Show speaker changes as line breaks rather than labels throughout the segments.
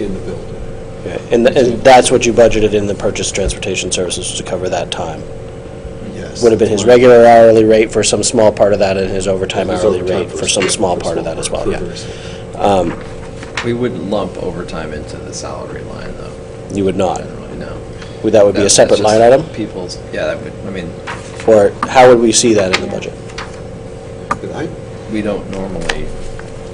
in the building.
And, and that's what you budgeted in the purchase transportation services to cover that time?
Yes.
Would have been his regular hourly rate for some small part of that and his overtime
His
hourly
overtime
rate for some small part of that as well, yeah.
Correct.
We wouldn't lump overtime into the salary line, though,
You would not.
generally, no.
Would That would be a
That's
separate
just
line item?
People's, yeah, that would, I mean,
Or how would we see that in the budget?
Did I?
we don't normally.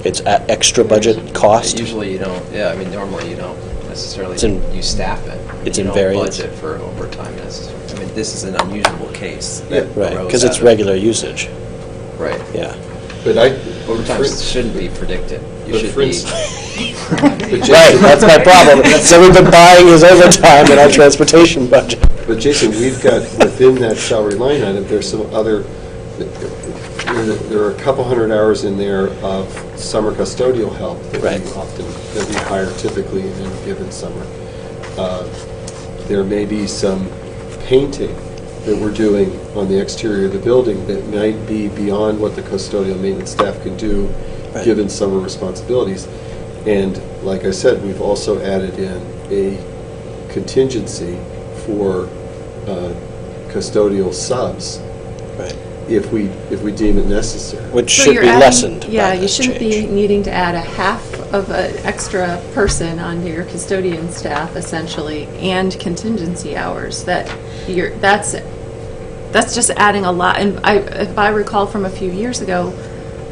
It's a- extra budget cost?
Usually you don't, yeah, I mean, normally you don't necessarily,
It's in-
you staff it.
it's
You
in
don't
variance.
budget for overtime necessarily. I mean, this is an unusual case.
Yeah.
that
Right,
arose
because
out
it's
of-
regular usage,
Right.
yeah.
But I.
Overtime shouldn't be predicted. You
But
should
for
be,
instance-
Right, that's my problem. So we've been buying his overtime in our transportation budget.
But Jason, we've got, within that salary line item, there's some other, there- there are a couple hundred hours in there of summer custodial help that
Right.
we often, that we hire typically in any given summer. Uh, There may be some painting that we're doing on the exterior of the building that might be beyond what the custodial maintenance staff can do,
Right.
given summer responsibilities. And like I said, we've also added in a contingency for uh, custodial subs
Right,
if we, if we deem it necessary.
Which
So
should
you're
be
adding-
lessened by
Yeah, you
this
shouldn't be
change.
needing to add a half of an extra person onto your custodian staff essentially, and contingency hours. That, you're, that's, that's just adding a lot. And I, if I recall from a few years ago,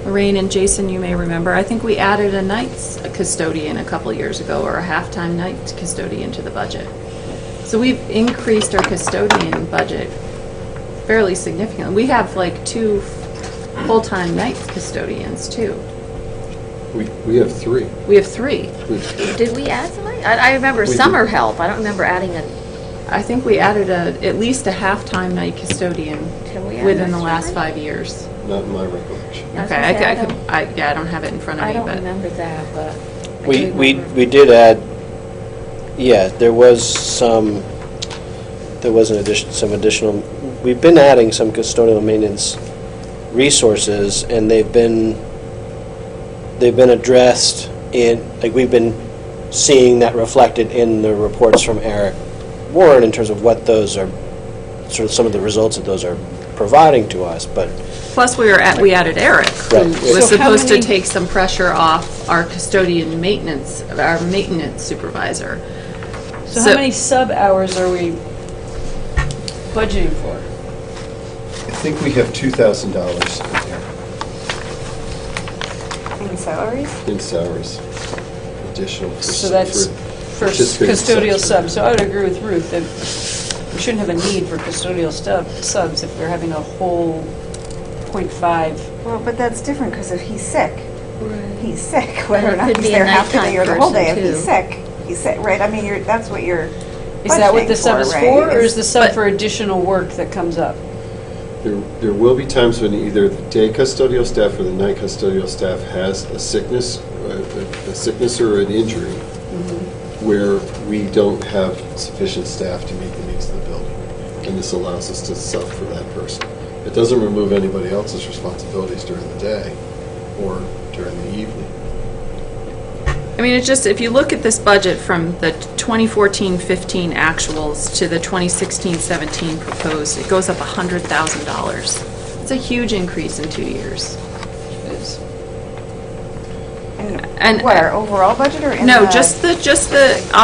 Lorraine and Jason, you may remember, I think we added a night's custodian a couple years ago, or a halftime night custodian to the budget. So we've increased our custodian budget fairly significantly. We have like two f- full-time night custodians, too.
We, we have three.
We have three.
We've-
Did we add somebody? I, I remember
We
summer
did.
help. I don't remember adding a,
I think we added a, at least a half-time night custodian
Can we add
within
an
the
extra
last
one?
five years.
Not in my recollection.
I was
Okay,
gonna
I
say,
c-
I
I could,
don't-
I, yeah, I don't have it in front of
I
me,
don't
but.
remember that, but. I
We,
do
we,
remember.
we did add, yeah, there was some, there was an addition, some additional, we've been adding some custodial maintenance resources, and they've been, they've been addressed in, like, we've been seeing that reflected in the reports from Eric Warren in terms of what those are, sort of some of the results that those are providing to us, but
Plus, we were at, we added Eric, who
Right.
was
So how
supposed to
many-
take some pressure off our custodian maintenance, our maintenance supervisor.
So how many sub-hours are we budgeting for?
I think we have $2,000 in there
In salaries?
in salaries, additional. for-
So that's
for
for
participating
custodial subs.
subs.
So I would agree with Ruth that we shouldn't have a need for custodial stub- subs if we're having a whole .5.
Well, but that's different because if he's sick, he's sick, whether
Or
or
it
not
could
he's
be a
there half the
nighttime
day or the whole
person,
day. If he's
too.
sick, he's sick, right? I mean, you're, that's what you're
Is that what the
budgeting
sub is
right?
for, or
It's-
is the sub for additional work that comes up?
There, there will be times when either the day custodial staff or the night custodial staff has a sickness, a a sickness or an injury,
Mm-hmm.
where we don't have sufficient staff to meet the needs of the building. And this allows us to sub for that person. It doesn't remove anybody else's responsibilities during the day or during the evening.
I mean, it's just, if you look at this budget from the 2014-15 actuals to the 2016-17 proposed, it goes up $100,000. It's a huge increase in two years.
Is-
and-
And what, our overall budget or in the?
No, just the, just the operations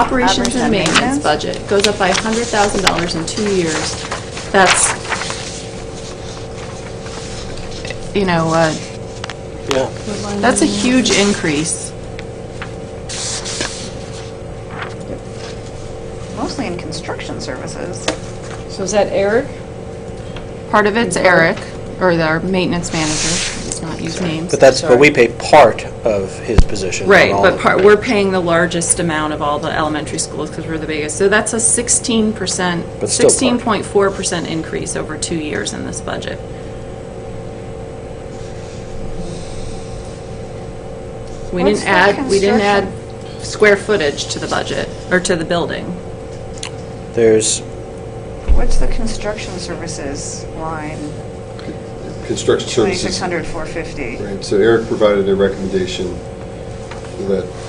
and
Operations and
maintenance
maintenance?
budget goes up by $100,000 in two years. That's, you know, uh,
yeah.
that's a huge increase.
Mostly in construction services.
So is that Eric?
Part of it's Eric, or our maintenance manager, let's not use names.
But that's, but we pay part of his position. not
Right,
all
but
of
part,
it.
we're paying the largest amount of all the elementary schools because we're the biggest. So that's a sixteen percent,
But still part.
sixteen point four percent increase over two years in this budget. We didn't
What's the
add, we didn't add square footage to the budget, or to the building.
There's,
What's the construction services line?
Construction services.
Twenty-six hundred, four fifty.
Right, so Eric provided a recommendation that